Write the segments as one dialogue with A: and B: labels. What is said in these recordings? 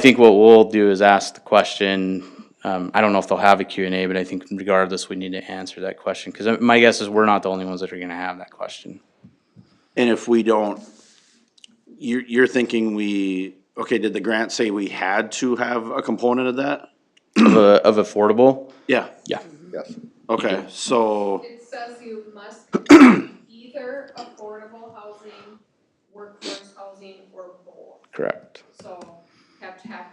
A: I think what we'll do is ask the question, um, I don't know if they'll have a Q and A, but I think regardless, we need to answer that question. Cause uh, my guess is we're not the only ones that are gonna have that question.
B: And if we don't, you're, you're thinking we, okay, did the grant say we had to have a component of that?
A: Of, a- of affordable,
B: Yeah,
A: yeah.
C: Yes.
B: okay, so,
D: It says you must either affordable housing, workforce housing, or both.
A: Correct.
D: So have to have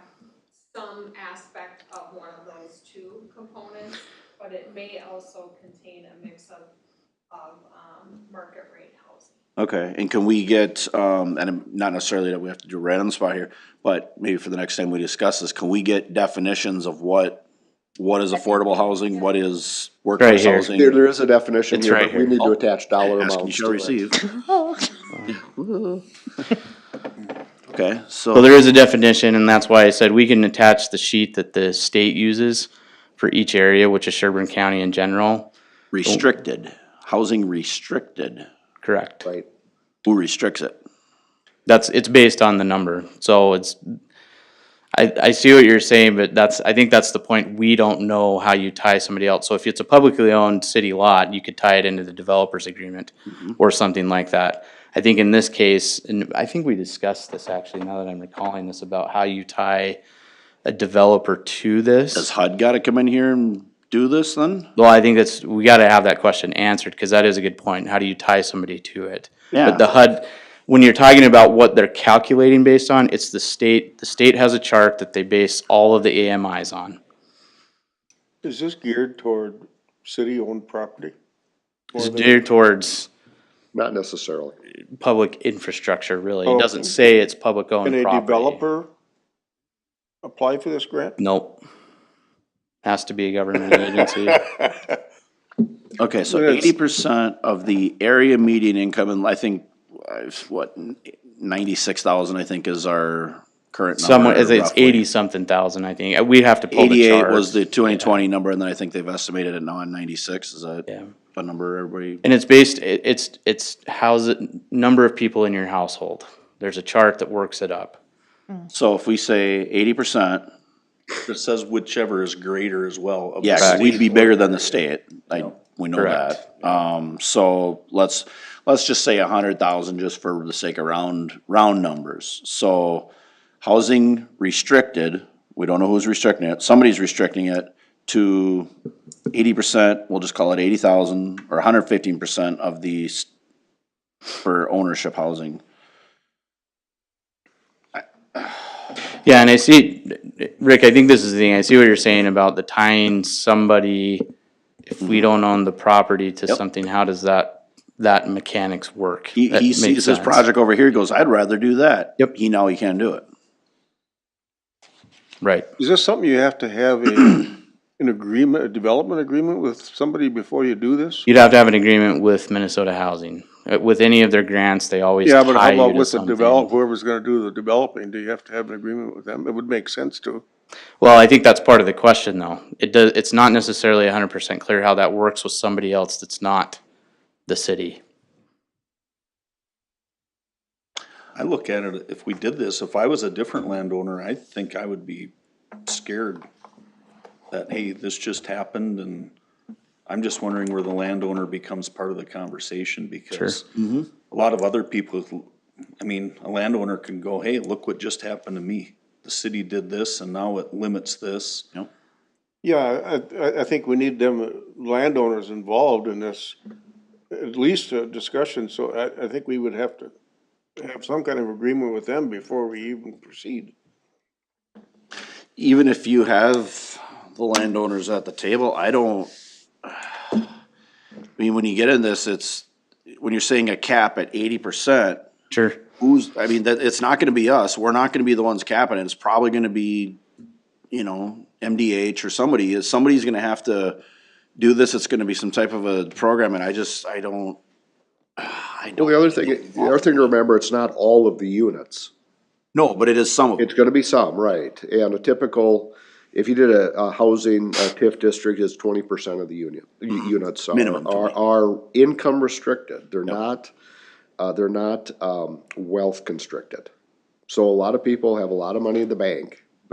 D: some aspect of one of those two components, but it may also contain a mix of, of, um, market rate housing.
B: okay, and can we get, um, and not necessarily that we have to do right on the spot here, but maybe for the next time we discuss this, can we get definitions of what, what is affordable housing, what is
A: Right
B: workforce
A: here.
B: housing?
C: There, there is a definition
A: It's
C: here,
A: right
C: but we
A: here.
C: need to attach dollar
B: Ask and you
C: amounts
B: shall
C: to it.
B: receive. Okay,
A: So
B: so,
A: there is a definition and that's why I said we can attach the sheet that the state uses for each area, which is Sherburne County in general.
B: restricted, housing restricted,
A: Correct.
C: Right,
B: who restricts it?
A: That's, it's based on the number, so it's, I, I see what you're saying, but that's, I think that's the point, we don't know how you tie somebody else. So if it's a publicly owned city lot, you could tie it into the developer's agreement or something like that. I think in this case, and I think we discussed this actually, now that I'm recalling this, about how you tie a developer to
B: Does
A: this.
B: HUD gotta come in here and do this then?
A: Well, I think that's, we gotta have that question answered, cause that is a good point, how do you tie somebody to it?
B: Yeah.
A: But the HUD, when you're talking about what they're calculating based on, it's the state, the state has a chart that they base all of the AMIs on.
E: Is this geared toward city-owned property?
A: It's geared towards
C: not necessarily.
A: public infrastructure, really. It
E: Oh.
A: doesn't say it's public owned
E: Can a
A: property.
E: developer apply for this grant?
A: Nope. Has to be a government agency.
B: Okay, so
E: Yes.
B: eighty percent of the area median income, and I think, uh, what, ninety-six thousand, I think, is our current number.
A: Someone, it's- it's
B: roughly.
A: eighty something thousand, I think. We'd have to pull the
B: Eighty-eight
A: chart.
B: was the twenty twenty number, and then I think they've estimated it now at ninety-six, is that
A: Yeah.
B: a number everybody?
A: And it's based, it, it's, it's how's it, number of people in your household. There's a chart that works it up.
B: So if we say eighty percent,
F: It says whichever is greater as well. of the
B: yeah, 'cause
F: state.
B: we'd be bigger than the state, I, we know
A: Correct.
B: that. Um, so let's, let's just say a hundred thousand just for the sake of round, round numbers. So housing restricted, we don't know who's restricting it, somebody's restricting it to eighty percent, we'll just call it eighty thousand or hundred fifteen percent of the s- for ownership housing.
A: Yeah, and I see, Rick, I think this is the thing, I see what you're saying about the tying somebody, if we don't own the property to
B: Yep.
A: something, how does that, that mechanics work?
B: He,
A: That
B: he
A: makes
B: sees his
A: sense.
B: project over here, he goes, I'd rather do that.
A: Yep.
B: He, now he can't do it.
A: Right,
E: Is this something you have to have a, an agreement, a development agreement with somebody before you do this?
A: you'd have to have an agreement with Minnesota Housing, Uh, with any of their grants, they always
E: Yeah, but
A: tie
E: how
A: you
E: about
A: to
E: with the
A: something.
E: develop, whoever's gonna do the developing, do you have to have an agreement with them? It would make sense to.
A: Well, I think that's part of the question, though, it does, it's not necessarily hundred percent clear how that works with somebody else that's not the city.
F: I look at it, if we did this, if I was a different landowner, I think I would be scared that, hey, this just happened and I'm just wondering where the landowner becomes part of the conversation because a lot of other people, I mean, a landowner can go, hey, look what just happened to me. The city did this and now it limits this.
E: Yeah, I, I, I think we need them, uh, landowners involved in this, at least a discussion, so I, I think we would have to have some kind of agreement with them before we even proceed.
B: even if you have the landowners at the table, I don't. I mean, when you get in this, it's, when you're saying a cap at eighty percent,
A: Sure,
B: who's, I mean, that, it's not gonna be us, we're not gonna be the ones capping it, it's probably gonna be, you know, MDH or somebody, somebody's gonna have to do this, it's gonna be some type of a program, and I just, I don't, I
C: Well,
B: don't,
C: the other thing, the other thing to remember, it's not all of the units.
B: no, but it is some of it.
C: It's gonna be some, right, and a typical, if you did a, a housing, a TIF district is twenty percent of the union, u- units are.
B: Mm-hmm. Minimum
C: Are,
B: 20.
C: are income restricted, they're not, uh, they're not, um, wealth constricted. So a lot of people have a lot of money in the bank,